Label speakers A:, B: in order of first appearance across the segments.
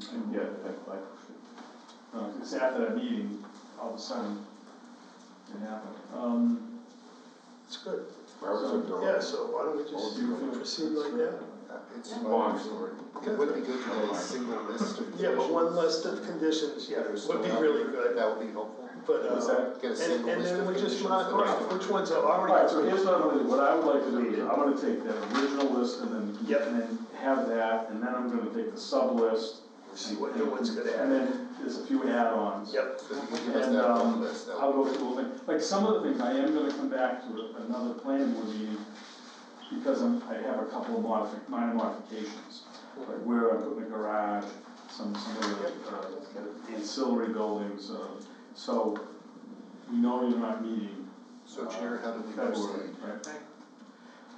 A: shouldn't get it, but like, uh, it's after that meeting, all of a sudden, it happened. Um,
B: It's good.
C: Robert's
A: So,
C: a door.
B: Yeah, so why don't we
A: do
B: just
A: you feel-
B: proceed like that?
C: Uh, It's
D: Yeah.
C: long story. It would be good to have a
A: Okay.
C: single list of.
B: Yeah, but one
C: conditions.
B: list of conditions, yeah,
C: There's
B: would be
C: no-
B: really good,
C: That would be helpful.
B: but,
A: What's
B: uh,
A: that?
C: Get a
B: and,
C: single
B: and
C: list of
B: then we just
C: conditions.
B: mark
C: that are
B: off which ones are
A: All right,
B: already
A: so here's
B: approved.
A: what I'm gonna do, what I would like to do is, I'm gonna take that original list and then,
B: Yep.
A: and then have that, and then I'm gonna take the sub-list.
B: See what new one's
A: And
B: gonna happen.
A: then there's a few add-ons.
B: Yep,
C: So you give us
A: And,
C: that
A: um,
C: one list, that
A: I'll
C: would
A: go through the whole thing, like, some of the things, I am gonna come back to another planning board meeting, because I'm, I have a couple of modifi- minor modifications. Like where I put my garage, some, some of the, uh, ancillary buildings, uh, so, we know you're not meeting. uh,
C: so Chair, how do we
A: February,
C: proceed?
A: right?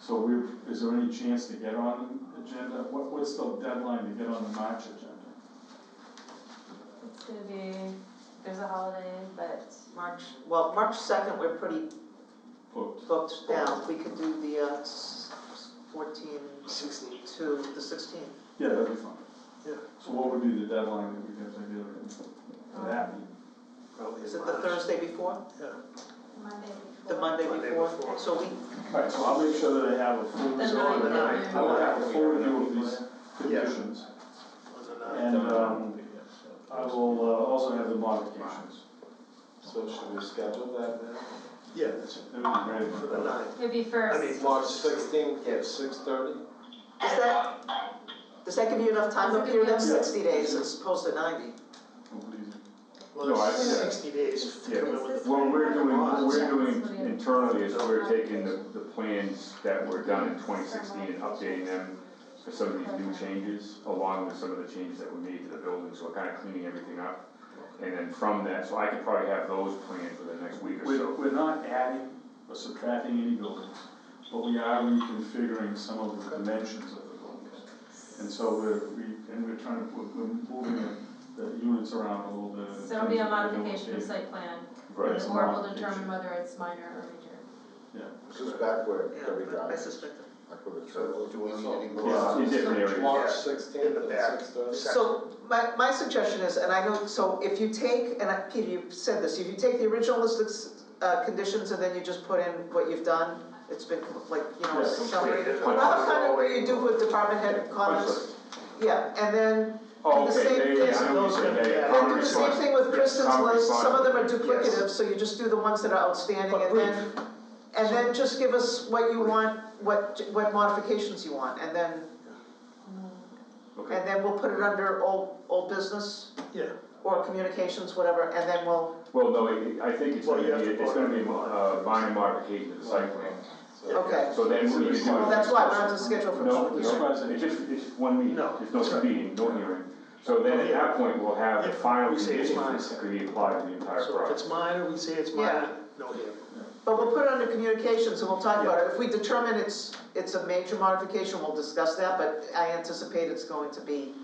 A: So we, is there any chance to get on the agenda, what, what's the deadline to get on the March agenda?
D: It's gonna be, there's a holiday, but March,
E: Well, March second, we're pretty
A: Booked,
E: booked down, we could do the uh s- s- fourteen
B: sixteen.
E: to the sixteen.
A: yeah, that'd be fine.
B: Yeah.
A: So what would be the deadline that we have to do for that meeting?
B: Probably
E: Is
B: in
E: it the
B: March.
E: Thursday before,
D: Monday before.
E: the Monday
B: Monday
E: before?
B: before.
E: So we,
A: Alright, so I'll make sure that I have a full
D: The
A: result,
D: ninth.
A: and I, I will have a full review of these
B: Yeah.
A: conditions.
B: Was it not?
A: And, um, I will uh, also have the modifications.
F: So should we schedule that then?
B: Yeah,
A: That would be
B: for
A: great.
B: the ninth.
D: It'd be
B: I
D: first.
B: mean,
F: March sixteenth
B: Yeah.
F: at six thirty?
E: is that, does that give you enough time
D: Does it
E: up
D: give
E: here,
D: you
E: that's
A: enough-
E: sixty days as opposed to ninety?
B: Well,
A: No, I-
B: it's
D: yeah.
B: sixty days to
G: Yeah.
B: come in with the.
G: What we're doing, what we're
D: Yeah.
G: doing internally is we're taking the, the plans that were done in twenty sixteen and updating them for some of these new changes, along with some of the changes that were made to the building, so we're kind of cleaning everything up. And then from that, so I could probably have those plans within the next week or
A: We're,
G: so.
A: we're not adding or subtracting any buildings, but we are reconfiguring some of the dimensions of the buildings. And so we're, we, and we're trying to, we're we're moving the, the units around a little bit. in
D: So it'll be a
A: terms of the
D: modification of
A: building.
D: site plan,
G: Right,
D: the
A: It's a
D: board will
A: modification.
D: determine whether it's minor or major.
C: This is back where every
E: Yeah, I- I
C: drive,
E: suspect that.
C: October third, do we need any more?
G: yeah, in different areas.
F: March
B: Yeah. In
F: sixteenth
B: the back.
F: at six thirty?
E: So my, my suggestion is, and I know, so if you take, and I- Peter, you said this, if you take the original list of, s- uh, conditions and then you just put in what you've done, it's been like, you know,
A: Yeah,
E: summary.
B: completed.
E: Another kind of where you do with department head comments, yeah, and then,
G: Oh,
E: the
G: okay,
E: same
G: yeah, yeah, yeah, I know what
E: things
G: you're
B: that
G: saying, yeah,
B: those can-
G: yeah,
E: and
G: common
E: do the same
G: response.
E: thing with
G: Yeah,
E: Kristen's
G: common
E: list, some of them are
G: response.
E: duplicative, so you just do the ones that are outstanding
B: But
E: and then, and then just give us what you want, what, what modifications you want, and then,
G: Okay,
E: and then we'll put it under old, old business.
B: Yeah,
E: or communications, whatever, and then we'll,
G: well, no, it- I think it's
B: Well,
G: gonna be,
B: you have to
G: it's gonna be,
B: vote.
G: uh, minor modification of the site plan,
E: okay.
G: so then we need to do.
E: Well, that's why we're on the schedule for
G: No,
E: public
G: no,
E: hearing.
G: it's just, it's just one meeting,
B: No,
G: there's no
B: that's right.
G: speeding, no hearing. So then at that point, we'll have the
B: If
G: final
B: we say it's
G: conditions
B: mine.
G: that could be applied to the entire
B: so if it's
G: project.
B: minor, we say it's minor,
E: Yeah.
B: no here.
E: But we'll put it under communications and we'll talk about it. If we determine it's, it's a major modification, we'll discuss that, but I anticipate it's going at this point.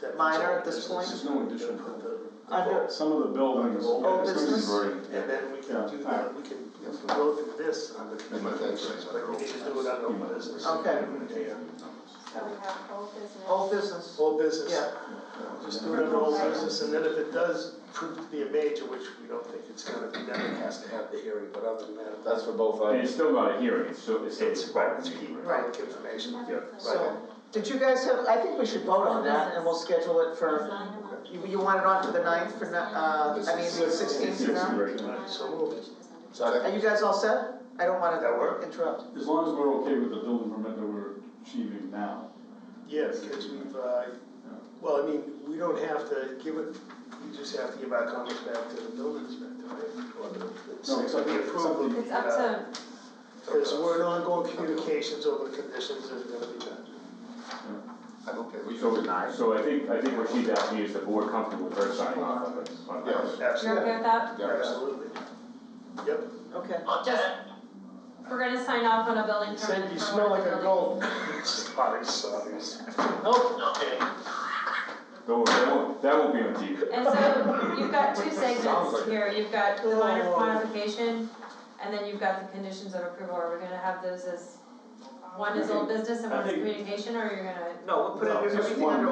B: That means
E: Minor
B: all
E: at this
B: business.
A: There's no addition.
B: Put the-
E: under,
A: Some of the buildings.
B: Old
A: there's some
E: Oh, business?
G: Converting, yeah.
B: And then we
A: Yeah.
B: can do that, we can we can go through this on the communications, but we need to do it on old business.
E: Okay.
B: Yeah.
D: So we have whole business.
G: Oh,
E: old business,
B: Old business.
E: yeah,
B: Just do it under old business, and then if it does prove to be a major, which we don't think it's gonna be, then it has to have the hearing, but other than that.
F: That's for both
G: And it's
F: items.
G: still not a hearing, it's still, it's still.
B: It's about to keep public information.
G: Yeah.
E: so, did you guys have, I think we should vote on that and we'll schedule it for, you, you want it on for the ninth, for, ni- uh, I mean, the sixteenth for now?
G: Right.
B: So moved.
E: Are you guys all set? I don't wanna
B: That work?
E: interrupt.
A: As long as we're okay with the building permit that we're achieving now.
B: Yeah, because we've, uh, well, I mean, we don't have to give it, we just have to give our comments back to the building inspector, right? Or the- the-
A: No, it's up to-
B: we approve
A: it's up to-
B: the,
D: It's up
B: uh,
D: to,
B: Because we're in ongoing communications over the conditions that are gonna be done.
C: I'm okay with
G: So,
C: it. Nine.
G: so I think, I think what she's asking is the board comfortable with her signing off on it, on that.
C: Yes.
D: you're okay with that?
C: Yeah.
B: Absolutely. Yep.
E: Okay.
D: Just, we're gonna sign off on a building permit.
B: Said you
D: for
B: smell
D: one
B: like a
D: building.
B: gold. Sorry, sorry.
E: Nope,
G: Don't worry, that won't, that won't be on TV.
D: And so you've got two
C: Sounds like
D: segments
C: it.
D: here, you've got the minor
B: Oh.
D: modification, and then you've got the conditions of approval, are we gonna have those as, one is old business and
A: I
D: one is
A: think-
D: communication, or you're gonna?
E: no, we'll put it-
B: No,
A: just
E: everything
A: one.
E: under